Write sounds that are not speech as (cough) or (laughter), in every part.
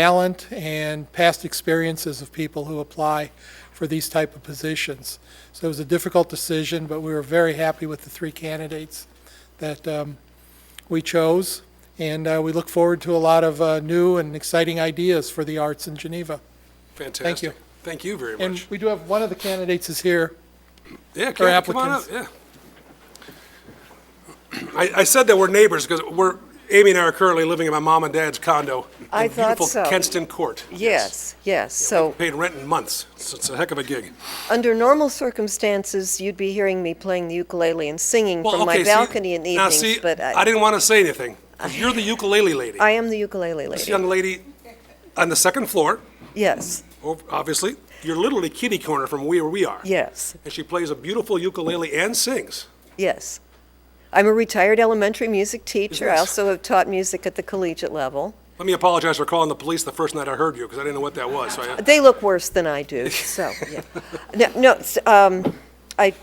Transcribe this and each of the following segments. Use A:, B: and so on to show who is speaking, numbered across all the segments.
A: talent and past experiences of people who apply for these type of positions. So it was a difficult decision, but we were very happy with the three candidates that um, we chose, and uh, we look forward to a lot of uh, new and exciting ideas for the arts in Geneva.
B: Fantastic.
A: you.
B: Thank you very
A: And
B: much.
A: we do have, one of the candidates is here.
B: Yeah, Kathy, come on up, yeah. I, I said that we're neighbors because we're, Amy and I are currently living in my mom and dad's condo. in
C: I thought
B: Beautiful
C: so.
B: Kenston Court.
C: Yes, yes. So,
B: Paid rent in months. It's it's a heck of a gig.
C: under normal circumstances, you'd be hearing me playing the ukulele and singing
B: Well,
C: from my
B: okay, see-
C: balcony in the
B: now,
C: evenings,
B: see,
C: but
B: I
C: I
B: didn't want to say anything. 'cause You're the ukulele lady.
C: I am the ukulele
B: This
C: lady.
B: young lady on the second floor,
C: Yes,
B: ov- obviously, you're literally kitty corner from where we are.
C: yes,
B: And she plays a beautiful ukulele and sings.
C: yes. I'm a retired elementary music teacher. I
B: Yes.
C: also have taught music at the collegiate level.
B: Let me apologize for calling the police the first night I heard you because I didn't know what that was. so I-
C: They look worse than I
B: (laughs)
C: do, so, yeah. No, no, s- um, I,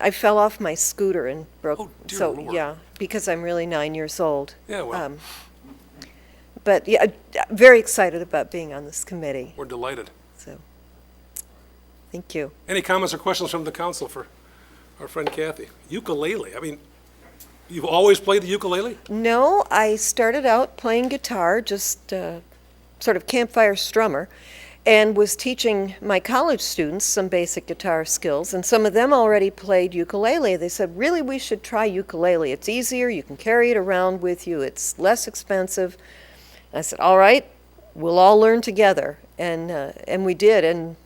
C: I fell off my scooter and broke.
B: Oh, dear
C: So,
B: Lord.
C: yeah, because I'm really nine years old.
B: Yeah, well.
C: Um, But, yeah, I- I'm very excited about being on this committee,
B: We're delighted.
C: so, thank you.
B: Any comments or questions from the council for our friend Kathy? Ukulele, I mean, you've always played the ukulele?
C: No, I started out playing guitar, just uh, sort of campfire strummer, and was teaching my college students some basic guitar skills. And some of them already played ukulele. They said, "Really, we should try ukulele. It's easier. You can carry it around with you. It's less expensive." I said, "All right, we'll all learn together," and uh, and we did. And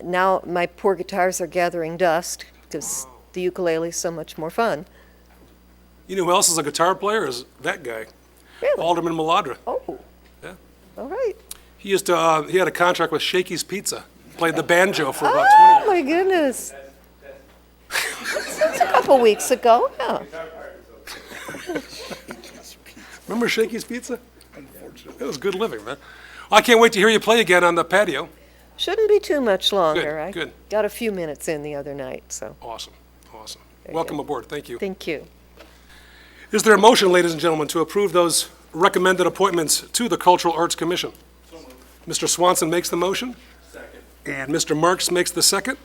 C: now my poor guitars are gathering dust because the ukulele is so much more fun.
B: You know who else is a guitar player? Is that guy,
C: Really?
B: Alderman Maladra.
C: Oh,
B: Yeah.
C: all right.
B: He used to, uh, he had a contract with Shakey's Pizza, played the banjo for about 20
C: Oh my goodness. That's a couple weeks ago, yeah.
B: Remember Shakey's Pizza? Unfortunately. It was good living, man. I can't wait to hear you play again on the patio.
C: Shouldn't be too much longer. I
B: good.
C: Got a few minutes in the other night, so,
B: Awesome, awesome. Welcome aboard, thank you.
C: thank you.
B: Is there a motion, ladies and gentlemen, to approve those recommended appointments to the Cultural Arts Commission? Mr. Swanson makes the motion. Second. And Mr. Marks makes the second.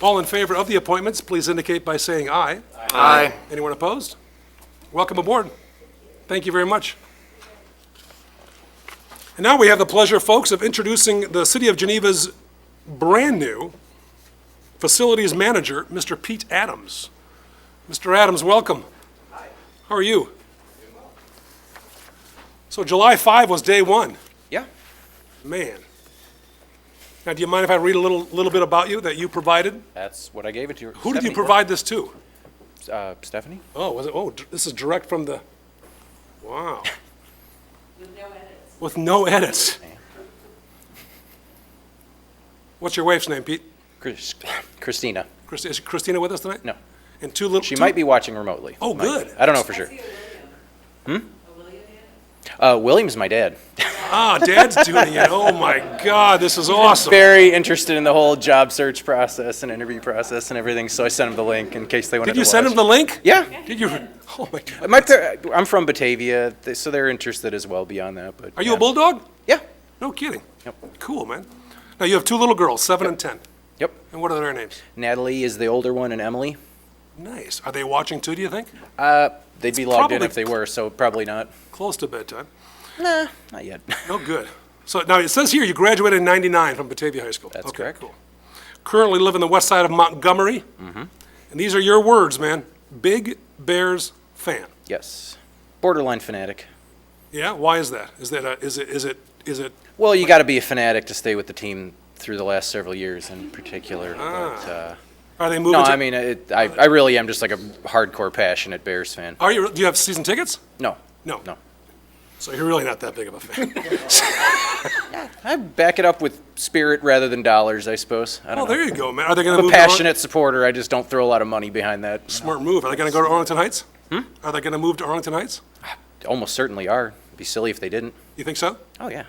B: All in favor of the appointments, please indicate by saying aye. Aye. Anyone opposed? Welcome aboard. Thank you very much. And now we have the pleasure, folks, of introducing the City of Geneva's brand-new Facilities Manager, Mr. Pete Adams. Mr. Adams, welcome. How are you? So July 5 was day one.
D: Yeah.
B: Man. Now, do you mind if I read a little, little bit about you that you provided?
D: That's what I gave it to you.
B: Who did you provide this to?
D: Uh, Stephanie?
B: Oh, was it, oh, d- this is direct from the,
D: (laughs)
B: wow. With no edits. With no edits. What's your wife's name, Pete?
D: Chris, Christina.
B: Christi- Is Christina with us tonight?
D: No.
B: And two little.
D: She
B: two-
D: might be watching remotely.
B: Oh,
D: Might-
B: good.
D: I don't know for sure. Hmm? Uh, William's my dad.
B: Ah, Dad's doing it. Oh, my God,
D: (laughs)
B: this is awesome.
D: Very interested in the whole job search process and interview process and everything, so I sent him the link in case they wanted
B: Did
D: to
B: you
D: watch.
B: send him the link?
D: Yeah.
B: Did you? Oh, my God.
D: My par- I'm from Batavia, th- so they're interested as well beyond that, but.
B: Are you
D: yeah.
B: a bulldog?
D: Yeah.
B: No kidding.
D: Yep.
B: Cool, man. Now you have two little girls, seven and ten.
D: Yep.
B: And what are their names?
D: Natalie is the older one and Emily.
B: Nice. Are they watching too? Do you think?
D: Uh, they'd be logged in
B: probably-
D: if they were, so probably not.
B: Close to bedtime.
D: Nah, not yet. (laughs)
B: No good. So now it says here you graduated in '99 from Batavia High School.
D: That's
B: okay,
D: correct.
B: Cool. Currently live in the west side of Montgomery. Mm-hmm. And these are your words, man. Big Bears fan.
D: Yes. Borderline fanatic.
B: Yeah. Why is that? Is that a, is it is it is it?
D: Well, you got to be a fanatic to stay with the team through the last several years in particular.
B: Ah.
D: But, uh,
B: Are they moving?
D: no,
B: to,
D: I mean, it, I, I really am just like a hardcore passionate Bears fan.
B: Are you? Do you have season tickets?
D: No.
B: No.
D: No.
B: So you're really not that big of a
D: (laughs)
B: fan.
D: I back it up with spirit rather than dollars, I suppose. I
B: oh,
D: don't know.
B: there you go, man. Are they going to
D: I'm a
B: move? to Ar-
D: passionate supporter. I just don't throw a lot of money behind that.
B: Smart move. Are they going to go to Arlington Heights? Hmm? Are they going to move to Arlington Heights?
D: Almost certainly are. It'd be silly if they didn't.
B: You think so?
D: Oh, yeah.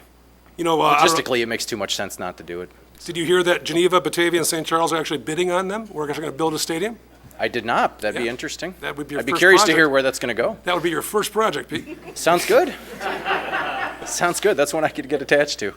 B: You know, uh, I don't know-
D: Logistically, it makes too much sense not to do it.
B: did you hear that Geneva, Batavia, and St. Charles are actually bidding on them? We're actually going to build a stadium?
D: I did not. That'd be
B: Yeah.
D: interesting.
B: That would be your
D: I'd be
B: first
D: curious to
B: project.
D: hear where that's going to go.
B: That would be your first project, Pete.
D: (laughs) Sounds good. Sounds good. That's one I could get attached to.